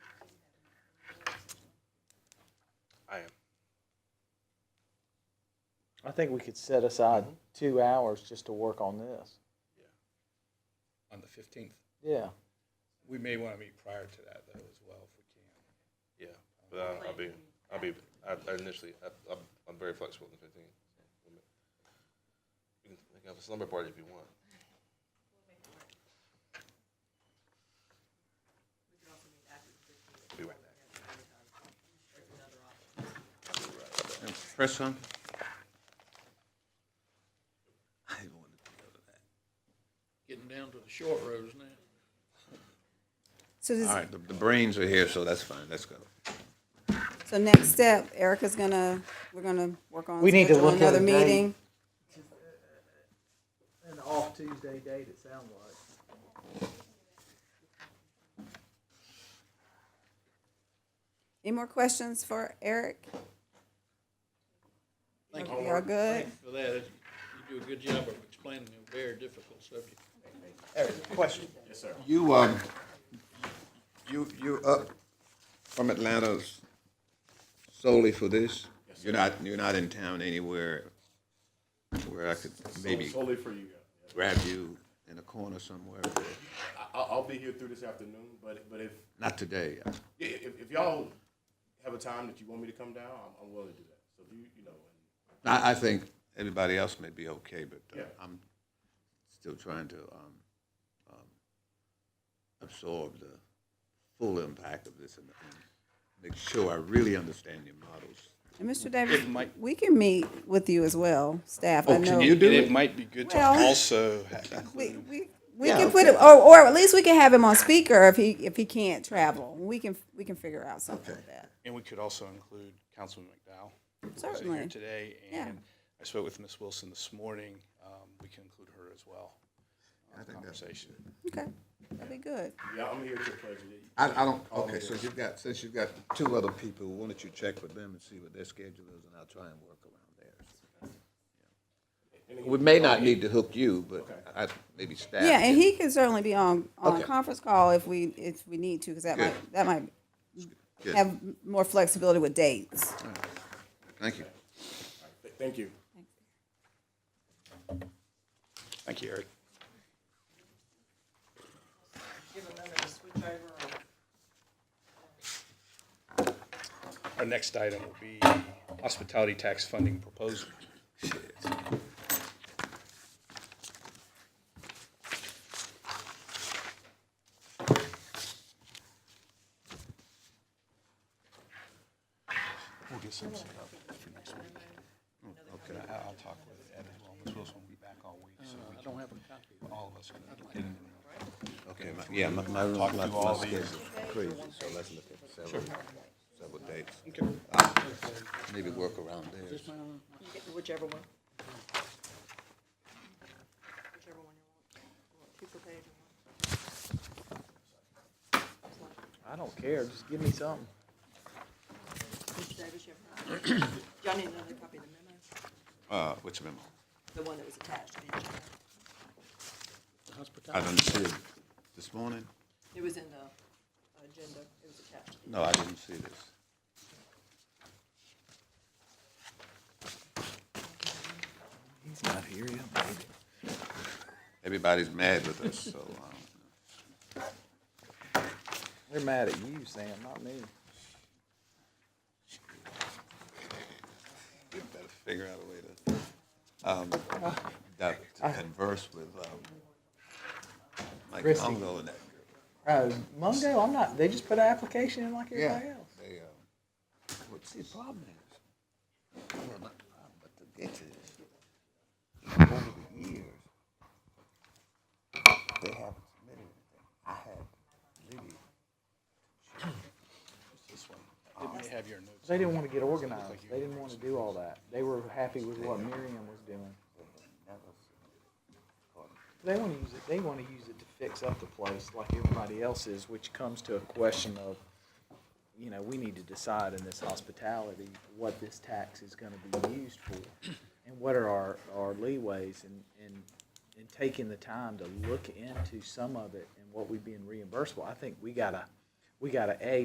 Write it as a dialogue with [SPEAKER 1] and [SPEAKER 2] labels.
[SPEAKER 1] I am.
[SPEAKER 2] I think we could set aside two hours just to work on this.
[SPEAKER 3] on the fifteenth.
[SPEAKER 2] Yeah.
[SPEAKER 3] We may want to meet prior to that though as well if we can.
[SPEAKER 1] Yeah, but I, I'll be, I'll be, I, I initially, I, I'm, I'm very flexible on the fifteenth. You can we can have a slumber party if you want. We will.
[SPEAKER 4] Press on. I wanted to go to that.
[SPEAKER 5] Getting down to the short roads now.
[SPEAKER 6] So,
[SPEAKER 4] All
[SPEAKER 6] this,
[SPEAKER 4] right, the, the brains are here, so that's fine. Let's go.
[SPEAKER 6] so next step, Erica's gonna, we're gonna work on.
[SPEAKER 2] We need to
[SPEAKER 6] scheduling
[SPEAKER 2] look at
[SPEAKER 6] another
[SPEAKER 2] a date.
[SPEAKER 6] meeting.
[SPEAKER 2] An off Tuesday date, it sounds like.
[SPEAKER 6] Any more questions for Eric?
[SPEAKER 5] Thank you.
[SPEAKER 6] Y'all
[SPEAKER 5] Mark.
[SPEAKER 6] good?
[SPEAKER 5] Thank you For that, you do a good job of explaining a very difficult subject.
[SPEAKER 4] Question. Yes, sir. You, um, you, you up from Atlanta solely for this? You're not, you're not in town anywhere where I could maybe
[SPEAKER 7] Solely for you guys.
[SPEAKER 4] grab you in a corner somewhere?
[SPEAKER 7] I, I'll, I'll be here through this afternoon, but, but if,
[SPEAKER 4] Not today.
[SPEAKER 7] yeah, if, if y'all have a time that you want me to come down, I'm, I'm willing to do that. So do you, you know,
[SPEAKER 4] I, I think everybody else may be okay, but uh,
[SPEAKER 7] Yeah.
[SPEAKER 4] I'm still trying to um, um, absorb the full impact of this and, and make sure I really understand your models.
[SPEAKER 6] And Mr. Davis,
[SPEAKER 8] It might-
[SPEAKER 6] we can meet with you as well, staff.
[SPEAKER 4] Oh,
[SPEAKER 6] I
[SPEAKER 4] can
[SPEAKER 6] know-
[SPEAKER 4] you do
[SPEAKER 8] And
[SPEAKER 4] it?
[SPEAKER 8] it might be good to
[SPEAKER 6] Well-
[SPEAKER 8] also, ha-
[SPEAKER 6] We, we, we
[SPEAKER 4] Yeah,
[SPEAKER 6] can put
[SPEAKER 4] okay.
[SPEAKER 6] him, or, or at least we can have him on speaker if he, if he can't travel. We can, we can figure out something like that.
[SPEAKER 8] and we could also include Councilman McDowell. who's
[SPEAKER 6] Certainly.
[SPEAKER 8] here today,
[SPEAKER 6] Yeah.
[SPEAKER 8] and I spoke with Ms. Wilson this morning. Um, We can include her as well. I think Conversation.
[SPEAKER 6] Okay, that'd be good.
[SPEAKER 7] yeah, I'm here to pledge it.
[SPEAKER 4] I, I don't, okay, so you've got, since you've got two other people, why don't you check with them and see what their schedule is, and I'll try and work around theirs. We may not need to hook you, but I, maybe staff.
[SPEAKER 6] Yeah, and he can certainly be on, on
[SPEAKER 4] Okay.
[SPEAKER 6] a conference call if we, if we need to, because that
[SPEAKER 4] Good.
[SPEAKER 6] might, that might
[SPEAKER 4] Good.
[SPEAKER 6] have more flexibility with dates.
[SPEAKER 4] Thank you.
[SPEAKER 7] Th- Thank you.
[SPEAKER 8] Thank you, Eric. Our next item will be hospitality tax funding proposal. We'll get some set up for next week. Okay. I- I'll talk with Ed as well. Ms. Wilson will be back all week, so we can, all of us can get in.
[SPEAKER 4] Okay, my- yeah, my, my, my,
[SPEAKER 8] Talk
[SPEAKER 4] my
[SPEAKER 8] through all
[SPEAKER 4] schedule's
[SPEAKER 8] these.
[SPEAKER 4] crazy, so let's look at several, several dates.
[SPEAKER 8] Okay.
[SPEAKER 4] Maybe work around theirs.
[SPEAKER 9] Whichever one. Whichever one you want. Two per page.
[SPEAKER 2] I don't care, just give me something.
[SPEAKER 9] Mr. Davis, you have. another copy? Y'all need another copy of the memo,
[SPEAKER 4] Uh, which memo?
[SPEAKER 9] the one that was attached to the agenda.
[SPEAKER 4] I didn't see it this morning?
[SPEAKER 9] It was in the agenda, it was attached. to the-
[SPEAKER 4] No, I didn't see this. He's not here yet, baby. Everybody's mad with us, so, um,
[SPEAKER 2] They're mad at you, Sam, not me.
[SPEAKER 4] we better figure out a way to, um, that, to converse with, um, Mike
[SPEAKER 2] Christie.
[SPEAKER 4] Congo and that girl.
[SPEAKER 2] Oh, Mungo, I'm not, they just put an application in like
[SPEAKER 4] Yeah.
[SPEAKER 2] everybody else.
[SPEAKER 4] They, um, what's the problem is? Well, not the problem, but the ditches. Over the years, they haven't submitted anything. I had Liddy,
[SPEAKER 8] It may have your notes.
[SPEAKER 2] They didn't want to get organized, they didn't want to do all that. They were happy with what Miriam was doing.
[SPEAKER 4] they had never submitted. according to-
[SPEAKER 2] They want to use it, they want to use it to fix up the place like everybody else is, which comes to a question of, you know, we need to decide in this hospitality what this tax is gonna be used for. And what are our, our leeways in, in, in taking the time to look into some of it and what we being reimbursable. I think we gotta, we gotta, A,